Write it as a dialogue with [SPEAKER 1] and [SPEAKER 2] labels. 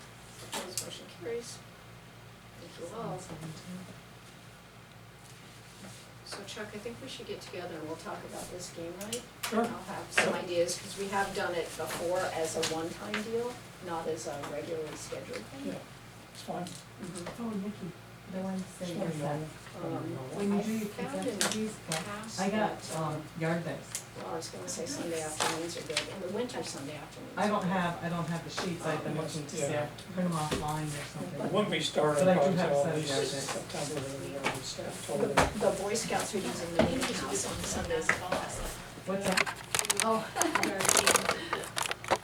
[SPEAKER 1] raise the walls. So Chuck, I think we should get together and we'll talk about this game night.
[SPEAKER 2] Sure.
[SPEAKER 1] I'll have some ideas, because we have done it before as a one-time deal, not as a regularly scheduled
[SPEAKER 2] Yeah,
[SPEAKER 1] thing.
[SPEAKER 2] it's fine.
[SPEAKER 1] Mhm.
[SPEAKER 3] Oh, Nikki, the one
[SPEAKER 2] Just
[SPEAKER 3] sitting
[SPEAKER 2] wanna know.
[SPEAKER 3] outside.
[SPEAKER 1] Um,
[SPEAKER 3] When you
[SPEAKER 1] I
[SPEAKER 3] do your
[SPEAKER 1] found
[SPEAKER 3] projections,
[SPEAKER 1] in
[SPEAKER 3] these go.
[SPEAKER 1] past
[SPEAKER 3] I got,
[SPEAKER 1] that,
[SPEAKER 3] um, yard bags.
[SPEAKER 1] Well, I was gonna say Sunday afternoons are good, in the winter Sunday afternoons.
[SPEAKER 3] I
[SPEAKER 1] are
[SPEAKER 3] don't
[SPEAKER 1] good.
[SPEAKER 3] have, I don't have the sheets, I've been looking to see, I print them offline or
[SPEAKER 2] But
[SPEAKER 3] something.
[SPEAKER 2] When we start
[SPEAKER 3] But
[SPEAKER 2] our
[SPEAKER 3] I do have
[SPEAKER 2] project,
[SPEAKER 3] some
[SPEAKER 2] at least
[SPEAKER 3] gadgets.
[SPEAKER 2] September, we already start totally.
[SPEAKER 1] The the Boy Scouts are using the meeting house on Sundays.
[SPEAKER 3] What's that?
[SPEAKER 1] Oh,